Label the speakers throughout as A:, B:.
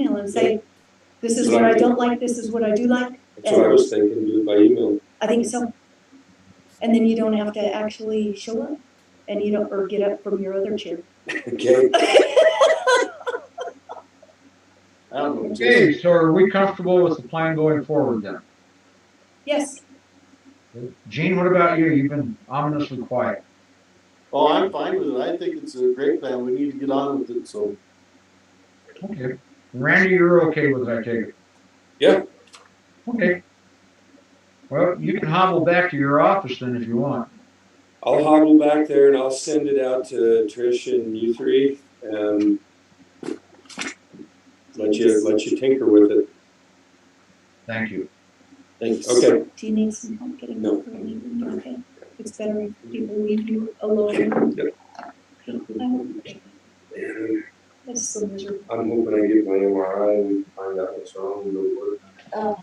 A: and say, this is what I don't like, this is what I do like,
B: That's what I was thinking, do it by email.
A: I think so. And then you don't have to actually show up and you don't, or get up from your other chair.
B: Okay.
C: I don't know.
D: Okay, so are we comfortable with the plan going forward then?
A: Yes,
D: Gene, what about you? You've been ominously quiet.
C: Oh, I'm fine with it. I think it's a great plan. We need to get on with it, so.
D: Okay. Randy, you're okay with that, I take it?
B: Yeah.
D: Okay. Well, you can hobble back to your office then if you want.
B: I'll hobble back there and I'll send it out to Trish and you three. Um, let you let you tinker with it.
D: Thank you.
C: Thanks.
B: Okay.
A: do you need some help getting
B: No.
A: up or anything? Okay, it's better if people leave you alone. Okay. That's so miserable.
B: I'm hoping I get my MRI and we can find out what's wrong and go to work.
A: Uh,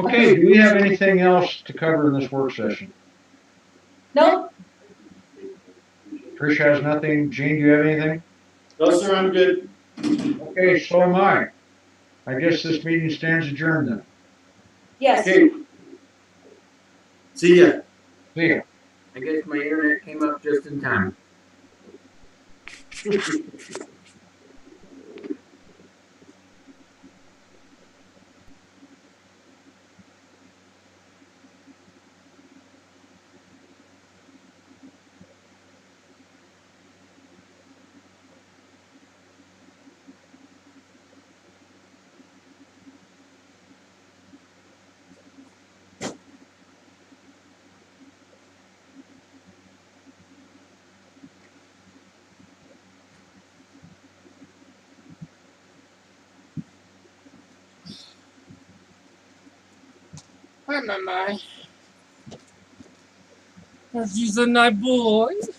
D: Okay, do we have anything else to cover in this work session?
A: no,
D: Trish has nothing. Gene, do you have anything?
C: No, sir, I'm good.
D: Okay, so am I. I guess this meeting stands adjourned then.
A: yes.
C: Okay. See ya.
D: See ya.
E: I guess my internet came up just in time.
F: Hi, Mama. She's a nice boy.